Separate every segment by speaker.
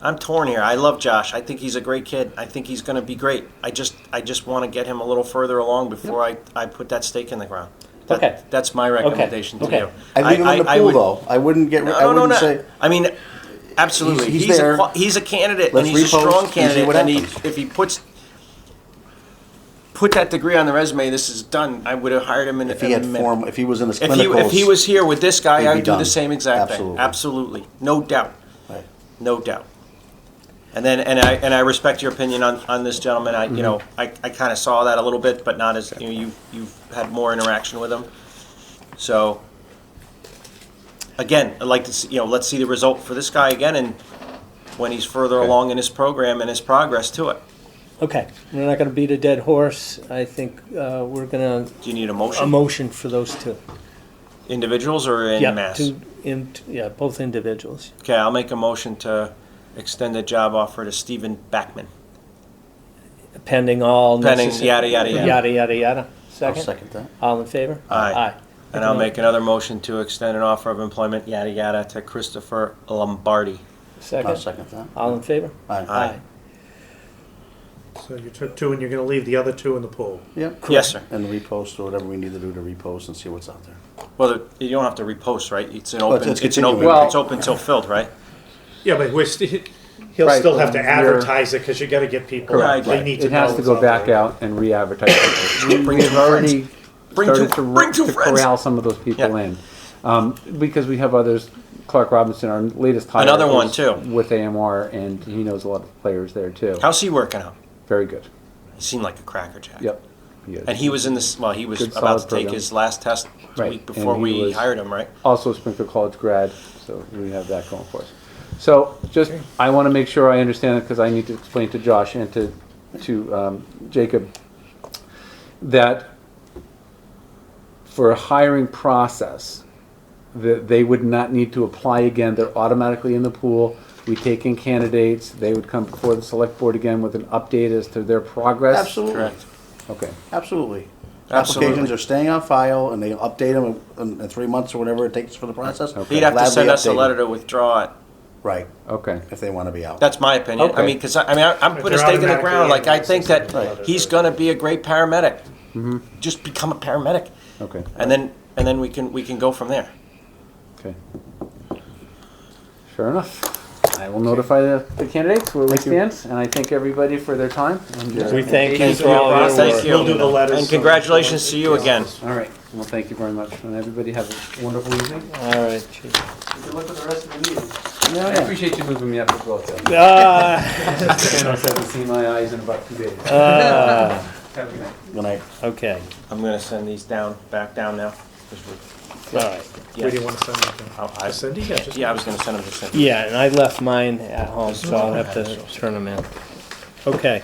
Speaker 1: I'm torn here. I love Josh. I think he's a great kid. I think he's going to be great. I just I just want to get him a little further along before I, I put that stake in the ground. That-
Speaker 2: Okay.
Speaker 1: That's my recommendation
Speaker 2: Okay.
Speaker 1: to you.
Speaker 3: I leave him on the pool
Speaker 1: would-
Speaker 3: though. I wouldn't get.
Speaker 1: No,
Speaker 3: I
Speaker 1: no, no,
Speaker 3: wouldn't
Speaker 1: no.
Speaker 3: say.
Speaker 1: I mean, absolutely.
Speaker 3: He's- he's
Speaker 1: a
Speaker 3: there.
Speaker 1: qua- he's a candidate,
Speaker 3: Let's
Speaker 1: and he's
Speaker 3: repost
Speaker 1: a
Speaker 3: and
Speaker 1: strong
Speaker 3: see
Speaker 1: candidate.
Speaker 3: what
Speaker 1: and he,
Speaker 3: happens.
Speaker 1: if he puts put that degree on the resume, this is done. I would have hired him in,
Speaker 3: If he
Speaker 1: in
Speaker 3: had
Speaker 1: a minute.
Speaker 3: form, if he was in his
Speaker 1: If he,
Speaker 3: clinicals,
Speaker 1: if he was here with this
Speaker 3: he'd
Speaker 1: guy,
Speaker 3: be
Speaker 1: I'd do
Speaker 3: done.
Speaker 1: the same exact
Speaker 3: Absolutely.
Speaker 1: thing. Absolutely, no doubt,
Speaker 3: Right.
Speaker 1: no doubt. And then, and I and I respect your opinion on, on this gentleman.
Speaker 2: Mm-hmm.
Speaker 1: I you know I, I kind of saw that a little bit, but not as you know, you you've had more interaction with him. So again, I'd like to see you know let's see the result for this guy again, and when he's further
Speaker 3: Okay.
Speaker 1: along in his program and his progress to it.
Speaker 2: Okay, we're not going to beat a dead horse. I think uh, we're going to
Speaker 1: Do you need a
Speaker 2: a
Speaker 1: motion?
Speaker 2: motion for those two.
Speaker 1: Individuals or in
Speaker 2: yeah,
Speaker 1: mass?
Speaker 2: two in yeah, both individuals.
Speaker 1: Okay, I'll make a motion to extend the job offer to Stephen Backman.
Speaker 2: Pending all
Speaker 1: Pending,
Speaker 2: necessary-
Speaker 1: yada, yada, yada.
Speaker 2: yada yada yada.
Speaker 3: I'll
Speaker 2: Second.
Speaker 3: second that.
Speaker 2: All in favor?
Speaker 1: Aye.
Speaker 2: Aye.
Speaker 1: And I'll make another motion to extend an offer of employment, yada, yada, to Christopher Lombardi.
Speaker 2: 2nd
Speaker 3: I'll second that.
Speaker 2: All in favor?
Speaker 3: Aye.
Speaker 1: Aye.
Speaker 4: So you took two and you're going to leave the other two in the pool.
Speaker 3: Yep.
Speaker 1: Yes, sir.
Speaker 3: And repost or whatever we need to do to repost and see what's out there.
Speaker 1: Well, you don't have to repost, right? It's an
Speaker 5: Oh,
Speaker 3: it's-
Speaker 1: open,
Speaker 3: it's
Speaker 1: it's an open,
Speaker 3: continuing. Well-
Speaker 1: it's open till filled, right?
Speaker 4: Yeah, but we're st- he'll
Speaker 5: Right,
Speaker 4: still have to
Speaker 5: but you're-
Speaker 4: advertise it because you got to get people.
Speaker 1: Correct.
Speaker 4: They
Speaker 1: Right.
Speaker 4: need to
Speaker 5: It has
Speaker 4: know
Speaker 5: to go
Speaker 4: it's
Speaker 5: back
Speaker 4: there.
Speaker 5: out and re-advertise. it. We-
Speaker 1: Bring
Speaker 5: We've
Speaker 1: two friends.
Speaker 5: already
Speaker 1: Bring two-
Speaker 5: started to,
Speaker 1: bring two
Speaker 5: to
Speaker 1: friends.
Speaker 5: corral some of those people
Speaker 1: Yeah.
Speaker 5: in. Um, because we have others, Clark Robinson, our latest hire.
Speaker 1: Another one,
Speaker 5: is
Speaker 1: too.
Speaker 5: With AMR, and he knows a lot of players there too.
Speaker 1: How's he working out?
Speaker 5: Very good.
Speaker 1: He seemed like a crackerjack.
Speaker 5: Yep. He is.
Speaker 1: And he was in this, well, he was
Speaker 5: Good,
Speaker 1: about to
Speaker 5: solid
Speaker 1: take
Speaker 5: program.
Speaker 1: his last test the
Speaker 5: Right,
Speaker 1: week before
Speaker 5: and he
Speaker 1: we
Speaker 5: was-
Speaker 1: hired him, right?
Speaker 5: also a Springfield College grad, so we have that going for us. So just, I want to make sure I understand it because I need to explain to Josh and to, to um, Jacob that for a hiring process, that they would not need to apply again. They're automatically in the pool. We take in candidates. They would come before the select board again with an update as to their progress.
Speaker 3: Absolutely.
Speaker 1: Correct.
Speaker 5: Okay.
Speaker 3: Absolutely.
Speaker 1: Absolutely.
Speaker 3: Applications are staying on file and they update them in, in three months or whatever it takes for the process.
Speaker 5: Okay.
Speaker 1: He'd have to
Speaker 3: Gladly
Speaker 1: send us a
Speaker 3: updated.
Speaker 1: letter to withdraw it.
Speaker 3: Right,
Speaker 5: Okay.
Speaker 3: if they want to be out.
Speaker 1: That's my opinion. I
Speaker 5: Okay.
Speaker 1: mean, because I, I mean, I, I'm
Speaker 4: But
Speaker 1: putting a
Speaker 4: they're
Speaker 1: stake in the
Speaker 4: automatically
Speaker 1: ground. Like I
Speaker 4: in the
Speaker 1: think
Speaker 4: system.
Speaker 1: that
Speaker 4: Right.
Speaker 1: he's going to be a great paramedic.
Speaker 5: Mm-hmm.
Speaker 1: Just become a paramedic,
Speaker 5: Okay.
Speaker 1: and then and then we can we can go from there.
Speaker 5: Okay. Sure enough. I will notify the, the candidates where we stand, and I thank everybody for their time. And, uh,
Speaker 2: We thank you
Speaker 4: Thank
Speaker 2: for all
Speaker 4: you.
Speaker 2: your
Speaker 4: Thank
Speaker 2: work.
Speaker 4: you. We'll do the letters.
Speaker 1: And congratulations to you again.
Speaker 5: All right. Well, thank you very much, and everybody have a wonderful evening.
Speaker 2: All right. chief.
Speaker 5: Good luck with the rest of the meeting. I appreciate you moving me up as well, Tim.
Speaker 2: Ah,
Speaker 5: Thanos hasn't seen my eyes in about two days.
Speaker 2: ah,
Speaker 5: Have a good night.
Speaker 3: Good night.
Speaker 2: okay.
Speaker 1: I'm going to send these down back down now. 'cause
Speaker 2: All right.
Speaker 1: we're-
Speaker 4: Where do
Speaker 1: yeah,
Speaker 4: you want to send that? to?
Speaker 1: I'll- I-
Speaker 4: Cindy? Yeah, just-
Speaker 1: yeah, I was going to send them to Cindy.
Speaker 2: Yeah, and I left mine at home, so I'll have to turn them in. Okay,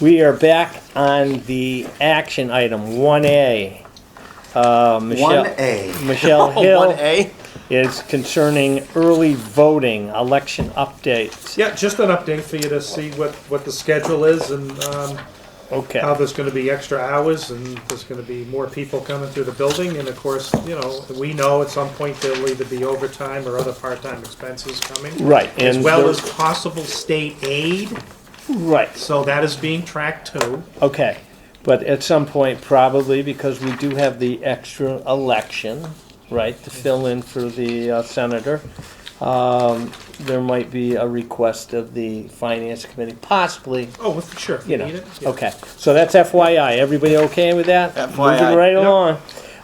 Speaker 2: we are back on the action item one A. Uh,
Speaker 3: One A.
Speaker 2: Michelle
Speaker 1: Oh, one
Speaker 2: Hill
Speaker 1: A.
Speaker 2: is concerning early voting election updates.
Speaker 4: Yeah, just an update for you to see what, what the schedule is and um, how
Speaker 2: Okay,
Speaker 4: there's going to be extra hours and there's going to be more people coming through the building. And of course, you know, we know at some point there'll either be overtime or other part-time expenses coming.
Speaker 2: right,
Speaker 4: As
Speaker 2: and
Speaker 4: well
Speaker 2: there-
Speaker 4: as possible state aid,
Speaker 2: right.
Speaker 4: so that is being tracked too.
Speaker 2: Okay, but at some point, probably, because we do have the extra election, right, to fill in for the uh, senator, um, there might be a request of the finance committee, possibly,
Speaker 4: Oh, well, for sure. if
Speaker 2: you
Speaker 4: need
Speaker 2: know.
Speaker 4: it, yeah.
Speaker 2: Okay, so that's FYI. Everybody okay with that?
Speaker 1: FYI.
Speaker 2: Moving right
Speaker 4: Yep.
Speaker 2: along.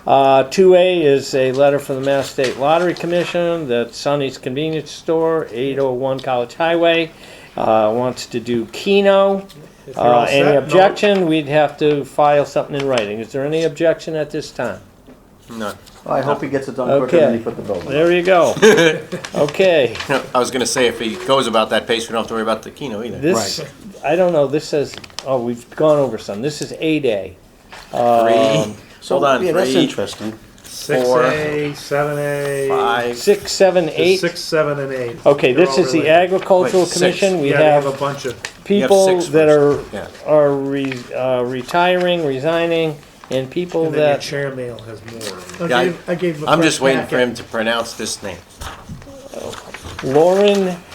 Speaker 2: Uh, 2A is a letter from the Mass State Lottery Commission that Sonny's Convenience Store, 801 College Highway, uh, wants to do Keno.
Speaker 4: If you're all
Speaker 2: Uh,
Speaker 4: set,
Speaker 2: any
Speaker 4: no.
Speaker 2: objection, we'd have to file something in writing. Is there any objection at this time?
Speaker 1: No,
Speaker 3: Well, I hope he gets it done quicker than he
Speaker 2: Okay.
Speaker 3: put the building.
Speaker 2: There you go. Okay,
Speaker 1: no, I was going to say if he goes about that pace, we don't have to worry about the Keno either.
Speaker 2: this, I don't know, this says, oh, we've gone over some. This is 8A.
Speaker 1: Three.
Speaker 3: uh, So,
Speaker 1: Hold on.
Speaker 3: Yeah, that's
Speaker 1: Three,
Speaker 3: interesting.
Speaker 4: Six
Speaker 1: Four.
Speaker 4: A, seven A.
Speaker 1: five.
Speaker 2: Six, seven, eight.
Speaker 4: Six, seven, and eight.
Speaker 2: Okay,
Speaker 4: They're
Speaker 2: this
Speaker 4: all
Speaker 2: is the
Speaker 4: related.
Speaker 2: agricultural
Speaker 1: Wait, six.
Speaker 2: commission. We
Speaker 4: Yeah, they have a
Speaker 2: have
Speaker 4: bunch of,
Speaker 2: people
Speaker 1: six
Speaker 2: that are,
Speaker 1: first. Yeah.
Speaker 2: are re- uh, retiring, resigning, and people
Speaker 4: and then your
Speaker 2: that,
Speaker 4: chair mail has more.
Speaker 1: Yeah, I-
Speaker 6: I gave him a
Speaker 1: I'm
Speaker 6: fresh
Speaker 1: just waiting for
Speaker 6: packet.
Speaker 1: him to pronounce this name.
Speaker 2: Lauren